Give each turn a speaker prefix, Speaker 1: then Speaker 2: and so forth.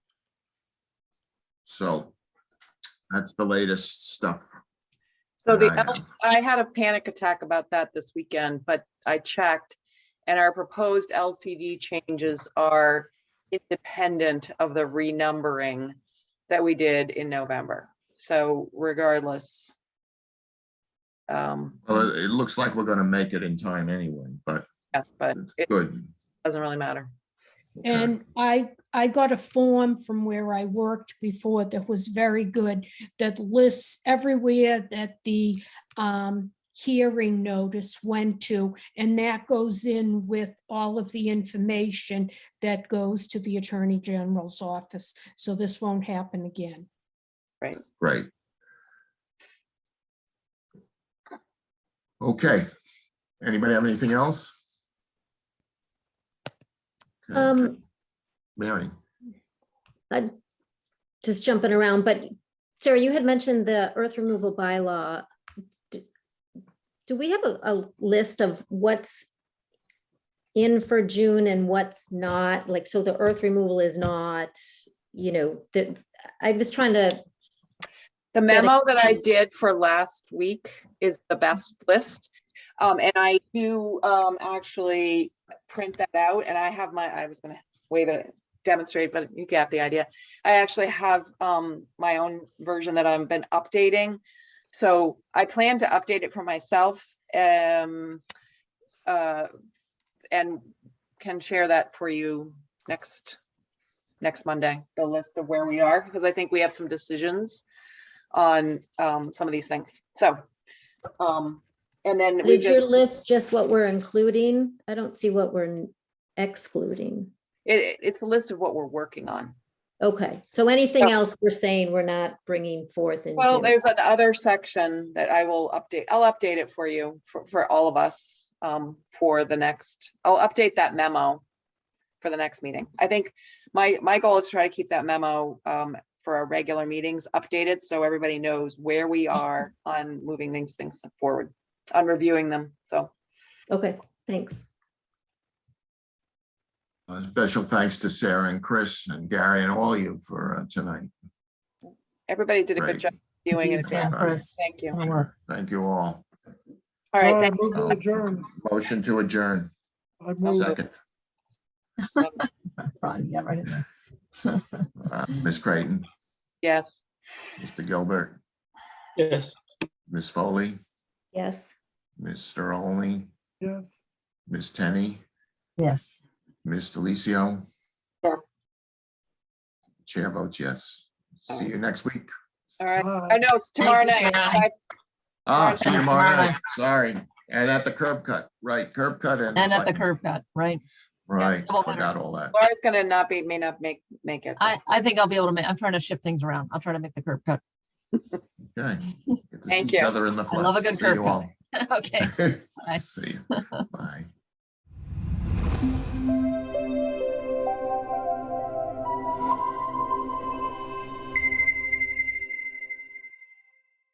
Speaker 1: So that's the latest stuff.
Speaker 2: So the,
Speaker 1: that I have.
Speaker 2: Elks- I had a panic attack about that this weekend, but I checked and our proposed LCD changes are independent of the renumbering that we did in November. So regardless. Um,
Speaker 1: Well, it, it looks like we're gonna make it in time anyway, but
Speaker 2: yeah, but
Speaker 1: it's
Speaker 2: it
Speaker 1: good.
Speaker 2: doesn't really matter.
Speaker 1: Okay.
Speaker 3: And I, I got a form from where I worked before that was very good, that lists everywhere that the um, hearing notice went to, and that goes in with all of the information that goes to the Attorney General's office, so this won't happen again.
Speaker 1: Great. Okay, anybody have anything else? Okay,
Speaker 4: Um,
Speaker 1: Mary,
Speaker 4: I'm just jumping around, but Sarah, you had mentioned the earth removal bylaw. D- Do we have a, a list of what's in for June and what's not? Like, so the earth removal is not, you know, the, I was trying to,
Speaker 2: The memo that I did for last week is the best list. Um, and I do, um, actually print that out and I have my, I was gonna wave it, demonstrate, but you got the idea. I actually have, um, my own version that I've been updating. So I plan to update it for myself, um, uh, and can share that for you next, next Monday, the list of where we are, because I think we have some decisions on um, some of these things. So, um, and then we
Speaker 4: is your
Speaker 2: just,
Speaker 4: list just what we're including? I don't see what we're excluding.
Speaker 2: it, it's a list of what we're working on.
Speaker 4: Okay, so anything
Speaker 2: Yeah.
Speaker 4: else we're saying we're not bringing forth in
Speaker 2: Well,
Speaker 4: June?
Speaker 2: there's another section that I will update. I'll update it for you, for, for all of us, um, for the next, I'll update that memo for the next meeting. I think my, my goal is to try to keep that memo, um, for our regular meetings updated, so everybody knows where we are on moving these things forward, on reviewing them, so.
Speaker 4: Okay, thanks.
Speaker 1: a special thanks to Sarah and Chris and Gary and all of you for uh, tonight.
Speaker 2: Everybody did a
Speaker 1: Great.
Speaker 2: good job viewing it.
Speaker 1: Sarah.
Speaker 2: Thank you.
Speaker 1: Thank you all. Uh,
Speaker 2: All right, thank
Speaker 5: Move to adjourn.
Speaker 1: Motion to adjourn,
Speaker 5: I move.
Speaker 1: second. Uh, Ms. Creighton,
Speaker 2: Yes.
Speaker 1: Mr. Gilbert,
Speaker 6: Yes.
Speaker 1: Ms. Foley,
Speaker 4: Yes.
Speaker 1: Mr. Olney,
Speaker 5: Yes.
Speaker 1: Ms. Tenney,
Speaker 7: Yes.
Speaker 1: Ms. Delicio.
Speaker 2: Yes.
Speaker 1: Chair votes yes. See you next week.
Speaker 2: All right.
Speaker 5: Aye.
Speaker 2: I know it's tomorrow
Speaker 7: Thank you,
Speaker 2: night.
Speaker 7: Sarah.
Speaker 1: Ah, see you tomorrow
Speaker 7: Tomorrow.
Speaker 1: night. Sorry. And at the curb cut, right, curb cut and.
Speaker 7: And at the
Speaker 1: slightly-
Speaker 7: curb cut, right?
Speaker 1: Right,
Speaker 7: double winner.
Speaker 1: forgot all that.
Speaker 2: Laura's gonna not be, may not make, make it.
Speaker 7: I, I think I'll be able to make, I'm trying to shift things around. I'll try to make the curb cut.
Speaker 1: Okay. Get to see
Speaker 2: Thank
Speaker 1: each
Speaker 2: you.
Speaker 1: other in the
Speaker 7: I love a
Speaker 1: flesh.
Speaker 7: good
Speaker 1: See you
Speaker 7: curb
Speaker 1: all.
Speaker 7: Okay. Bye.
Speaker 1: See you. Bye.